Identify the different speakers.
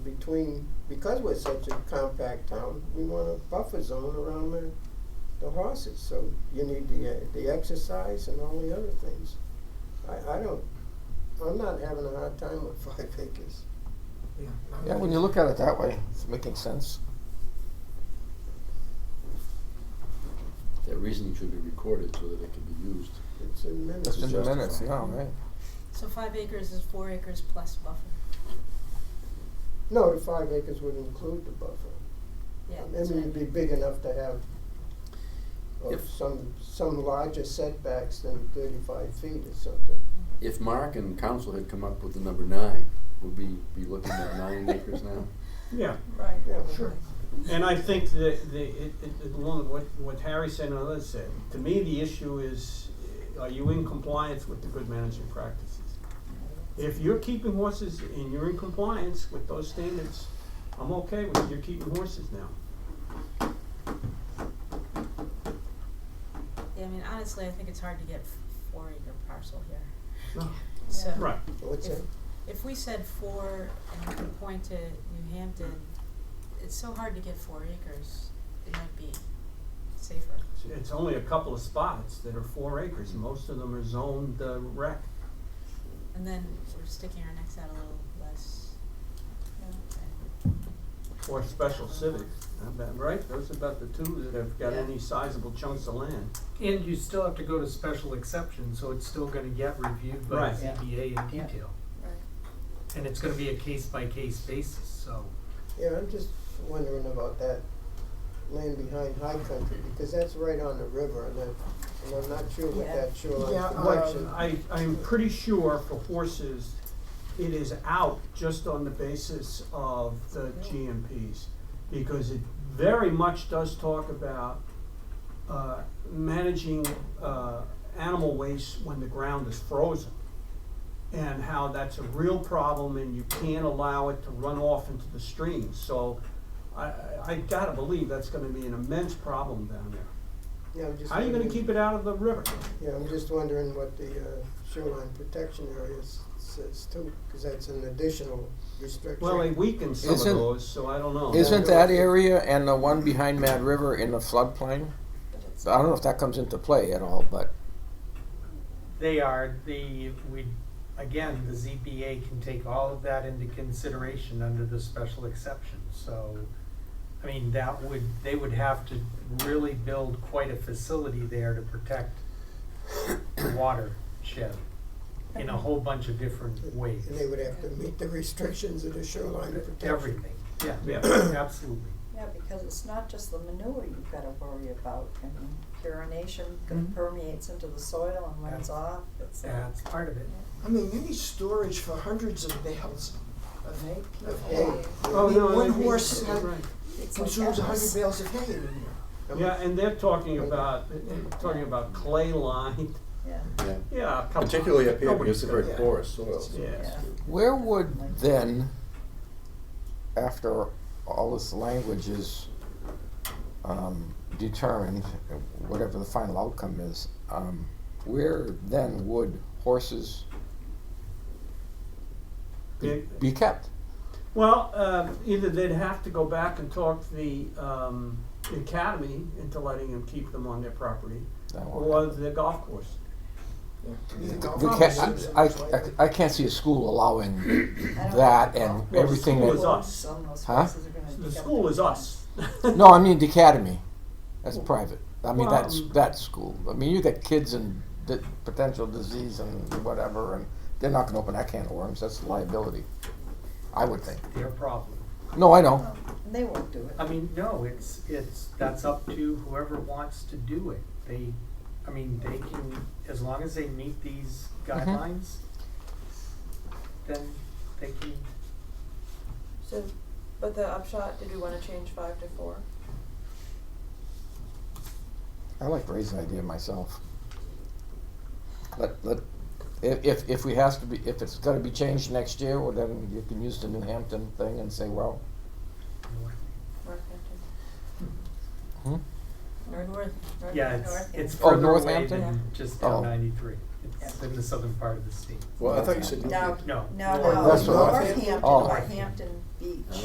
Speaker 1: between, because we're such a compact town, we want a buffer zone around the, the horses, so you need the, uh, the exercise and all the other things. I, I don't, I'm not having a hard time with five acres.
Speaker 2: Yeah, when you look at it that way, it's making sense.
Speaker 3: That reasoning should be recorded so that it can be used.
Speaker 1: It's in minutes.
Speaker 2: It's in the minutes now,
Speaker 3: justified.
Speaker 2: right?
Speaker 4: So five acres is four acres plus buffer.
Speaker 1: No, the five acres would include the buffer.
Speaker 4: Yeah,
Speaker 1: I mean,
Speaker 4: that's what I
Speaker 1: it'd be
Speaker 4: mean.
Speaker 1: big enough to have, or
Speaker 3: If-
Speaker 1: some, some larger setbacks than thirty-five feet or something.
Speaker 3: If Mark and council had come up with the number nine, would we be looking at nine acres now?
Speaker 5: Yeah,
Speaker 4: Right.
Speaker 1: Yeah.
Speaker 5: Sure. and I think that the, it, it, along with what, what Harry said and others said, to me, the issue is, eh, are you in compliance with the good management practices? If you're keeping horses and you're in compliance with those standards, I'm okay with you keeping horses now.
Speaker 4: Yeah, I mean, honestly, I think it's hard to get f- four acre parcel here.
Speaker 5: No.
Speaker 4: So
Speaker 5: Right,
Speaker 1: What's
Speaker 4: if,
Speaker 1: that?
Speaker 4: if we said four and we could point to New Hampton, it's so hard to get four acres. It might be safer.
Speaker 5: It's- it's only a couple of spots that are four acres, most of them are zoned uh, rec.
Speaker 4: And then we're sticking our necks out a little less.
Speaker 5: Or special civic, about- right? Those are about the two that have got
Speaker 4: Yeah.
Speaker 5: any sizable chunks of land.
Speaker 6: And you still have to go to special exception, so it's still gonna get reviewed by
Speaker 5: Right.
Speaker 6: the ZBA in detail. And it's gonna be a case by case basis, so.
Speaker 1: Yeah, I'm just wondering about that land behind High Country, because that's right on the river, and I'm, and I'm not sure what
Speaker 4: Yeah.
Speaker 1: that shoreline
Speaker 5: Yeah,
Speaker 1: protection.
Speaker 7: uh,
Speaker 5: I, I'm pretty sure for horses, it is out just on the basis of the GMPs. Because it very much does talk about, uh, managing, uh, animal waste when the ground is frozen. And how that's a real problem and you can't allow it to run off into the stream, so I, I- I gotta believe that's gonna be an immense problem down there.
Speaker 1: Yeah, I'm just
Speaker 5: How are you gonna
Speaker 1: wondering-
Speaker 5: keep it out of the river?
Speaker 1: Yeah, I'm just wondering what the uh, shoreline protection area s- says too, because that's an additional restriction.
Speaker 5: Well, they weakened some of
Speaker 2: Isn't-
Speaker 5: those, so I don't know.
Speaker 2: Isn't that area and the one behind Mad River in the floodplain? I don't know if that comes into play at all, but
Speaker 6: They are, the, we, again, the ZBA can take all of that into consideration under the special exception, so. I mean, that would, they would have to really build quite a facility there to protect the watershed in a whole bunch of different ways.
Speaker 1: And they would have to meet the restrictions of the shoreline protection.
Speaker 6: Everything, yeah,
Speaker 5: Yeah,
Speaker 6: absolutely.
Speaker 8: Yeah, because it's not just the manure you've gotta worry about, I mean, urination gonna
Speaker 5: Mm-hmm.
Speaker 6: Mhm.
Speaker 8: permeates into the soil and when it's
Speaker 6: That's-
Speaker 8: off, it's.
Speaker 6: That's part of it.
Speaker 7: I mean, you need storage for hundreds of bales of hay. Of
Speaker 1: Hey,
Speaker 7: hay. I
Speaker 5: oh, no,
Speaker 7: mean, one
Speaker 5: that'd be-
Speaker 7: horse
Speaker 5: that's
Speaker 7: uh,
Speaker 5: right.
Speaker 8: it's like
Speaker 7: consumes a hundred
Speaker 8: apples.
Speaker 7: bales of hay in a year.
Speaker 1: I'm-
Speaker 5: Yeah, and they're talking about, they're talking about clay lined,
Speaker 8: Yeah,
Speaker 3: Yeah,
Speaker 5: yeah, come on.
Speaker 3: particularly up here because it's a very
Speaker 7: Yeah.
Speaker 3: porous soil.
Speaker 5: Yes,
Speaker 8: yeah.
Speaker 2: where would then, after all this language is um, determined, whatever the final outcome is, um, where then would horses be,
Speaker 5: Big-
Speaker 2: be kept?
Speaker 5: well, um, either they'd have to go back and talk to the, um, the academy into letting them keep them on their property,
Speaker 2: That won't
Speaker 5: or the golf course.
Speaker 7: You go
Speaker 2: We
Speaker 7: from
Speaker 2: can't,
Speaker 7: Simpsons,
Speaker 2: I,
Speaker 7: right?
Speaker 2: I, I can't see a school allowing
Speaker 8: I don't
Speaker 2: that
Speaker 8: know.
Speaker 2: and
Speaker 5: Well,
Speaker 2: everything
Speaker 5: school
Speaker 2: that,
Speaker 5: is- us.
Speaker 8: Some of those
Speaker 2: Huh?
Speaker 8: places are gonna dig
Speaker 5: The
Speaker 8: up
Speaker 5: school
Speaker 8: their
Speaker 5: is us.
Speaker 2: no, I mean the academy, that's private. I mean,
Speaker 5: Well,
Speaker 2: that's,
Speaker 5: um,
Speaker 2: that's school. I mean, you got kids and di- potential disease and whatever, and they're not gonna open that can of worms, that's liability, I would think.
Speaker 6: Their problem.
Speaker 2: No, I know,
Speaker 8: plants. They won't do it.
Speaker 6: I mean, no, it's, it's, that's up to whoever wants to do it. They, I mean, they can, as long as they meet these
Speaker 2: Mm-hmm.
Speaker 6: guidelines, then they can,
Speaker 9: So, but the upshot, did we wanna change five to four?
Speaker 2: I like Ray's idea myself. Let, let, if, if, if we has to be, if it's gonna be changed next year, well, then you can use the New Hampton thing and say, well,
Speaker 9: Northampton.
Speaker 2: hmm,
Speaker 4: Or north.
Speaker 9: Northampton.
Speaker 6: yeah, it's, it's
Speaker 2: Oh,
Speaker 6: further away
Speaker 2: Northampton?
Speaker 6: than just
Speaker 2: Oh.
Speaker 6: down ninety-three. It's in the southern part of the state.
Speaker 3: Well, I thought you said.
Speaker 8: Now,
Speaker 6: No.
Speaker 8: now,
Speaker 2: that's what I-
Speaker 8: Northampton
Speaker 2: Oh.
Speaker 8: or Hampton Beach.